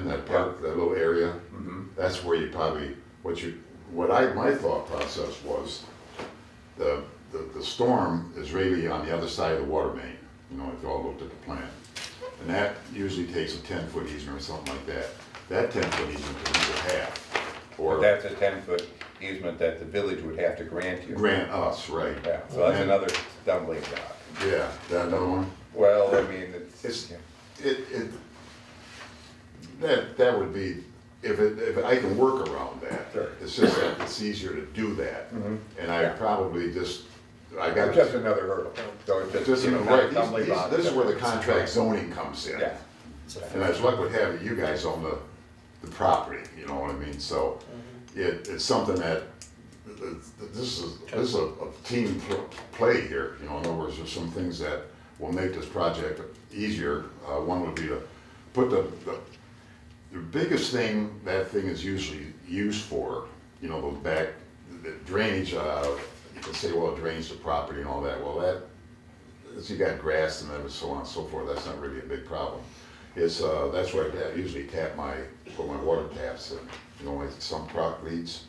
in that park, that little area, Mhm. that's where you probably, what you, what I, my thought process was, the, the, the storm is really on the other side of the water main, you know, if you all looked at the plan. And that usually takes a ten foot easement or something like that. That ten foot easement could be a half, But or that's a ten-foot easement that the village would have to grant you. grant us, right? Yeah, so that's And- another stumbling block. Yeah, that another one? Well, I mean, It's- it's, yeah. It, it, that, that would be, if it, if I can work around that. Sure. It's just that it's easier to do that. And I Yeah. probably just, I got. it's just another hurdle. So it's This just, is, you know, right, another these- stumbling these- block. this is where the contract zoning comes in. Yeah. And as luck would have it, you guys own the, the property, you know what I mean, so it, it's something that, th- th- this is, this is a, a team pl- play here, you know, in other words, there's some things that will make this project easier. Uh, one would be to put the, the, the biggest thing that thing is usually used for, you know, those back, the drainage, uh, you can say, well, it drains the property and all that, well, that, if you got grass and everything, so on and so forth, that's not really a big problem. It's, uh, that's where I usually tap my, put my water taps in, you know, like some crock leads,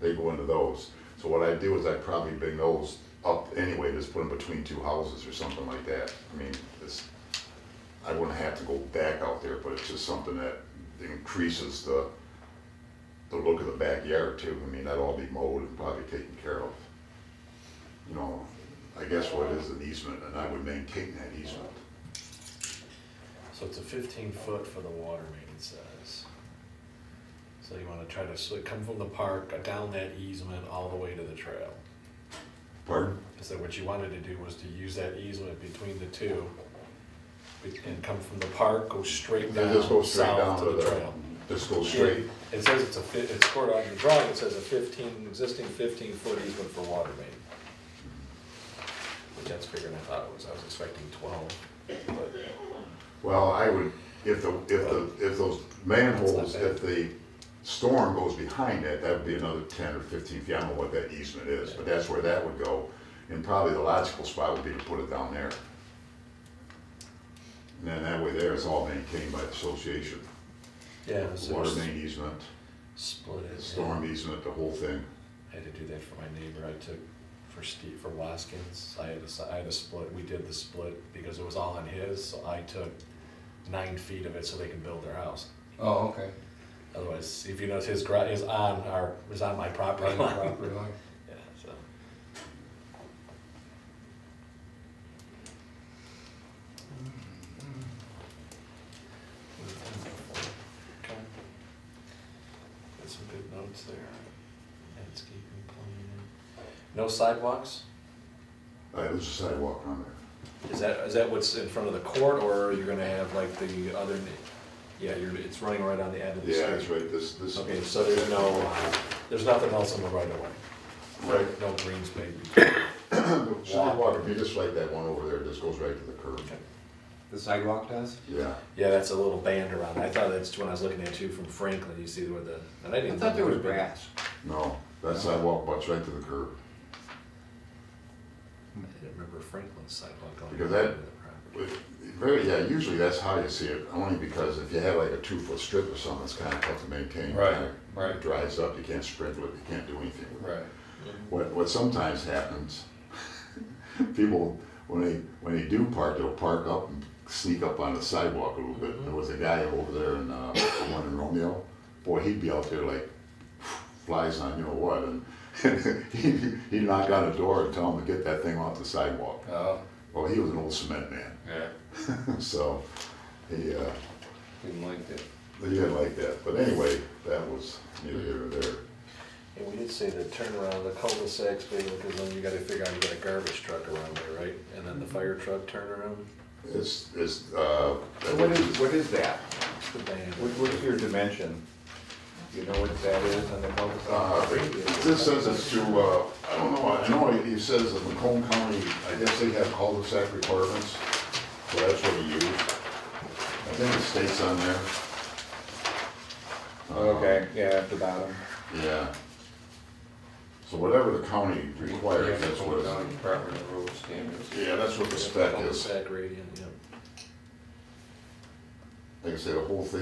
they go into those. So what I do is I probably bring those up anyway, just put them between two houses or something like that. I mean, it's, I wouldn't have to go back out there, but it's just something that increases the, the look of the backyard too. I mean, that'll all be mowed and probably taken care of. You know, I guess what is an easement, and I would maintain that easement. So it's a fifteen foot for the water main, it says. So you wanna try to, so it come from the park, uh, down that easement, all the way to the trail. Pardon? So what you wanted to do was to use that easement between the two, be- and come from the park, go straight Then down, just go straight down south to to the the, trail. just go straight. It says it's a, fi- it's scored on your drawing, it says a fifteen, existing fifteen foot easement for water main. Which that's bigger than I thought it was, I was expecting twelve, but. Well, I would, if the, if the, if those manholes, if the storm goes behind that, that would be another ten or fifteen feet. I don't know what that easement is, but that's where that would go. And probably the logical spot would be to put it down there. And then that way there it's all maintained by the association. Yeah, Water main easement, Split it. storm easement, the whole thing. I had to do that for my neighbor. I took for Steve for Waskins. I had a, s- I had a split. We did the split because it was all on his. So I took nine feet of it so they can build their house. Oh, okay. Otherwise, if you notice, his garage is on our is on my property line. Property line. Yeah. So okay. Got some good notes there. Landscaping plan. No sidewalks. Uh, there's a sidewalk on there. Is that, is that what's in front of the court, or you're gonna have like the other, yeah, you're, it's running right on the end of the Yeah, that's street? right, this, this. Okay, so there's no, there's nothing else on the right of way? Right. No green space? The Sidewalk, if you just like that one over there, it just goes right to the curb. Okay. The sidewalk does? Yeah. Yeah, that's a little band around, I thought that's when I was looking at you from Franklin, you see where the, and I I didn't. thought there was grass. No, that sidewalk butts right to the curb. I didn't remember Franklin's sidewalk. on Because the that- other property. With- Very, yeah, usually that's how you see it, only because if you have like a two-foot strip or something, it's kind of tough to maintain. Right, Kinda right. Dries up, you can't sprinkle it, you can't do anything with it. Right. What, what sometimes happens, people, when they, when they do park, they'll park up and sneak up on the sidewalk a little bit. Mm-hmm. There was a guy over there in, uh, the one in Romeo, boy, he'd be out there like flies on you know what, and he'd, he'd knock on a door and tell him to get that thing off the sidewalk. Oh, Well, he was an old cement man, yeah. so he, uh, Didn't like that. he didn't like that. But anyway, that was neither here nor there. And we did say the turnaround, the cul-de-sacs, big, because then you gotta figure out you got a garbage truck around there, right? And then the fire truck turnaround, It's, it's, uh, So what is, what is that? it's the band. What, what is your dimension? Do you know what that is on the public? Uh, This says it's to, uh, I don't know, I know it it says that Macomb County, I guess they have cul-de-sac requirements, so that's what we use. I think it states on there. Uh, Okay, yeah, at the bottom. Yeah. So whatever the county requires, that's what, it's- Property road standards. yeah, that's what the spec is. Cul-de-sac gradient, yeah. Like I said, the whole thing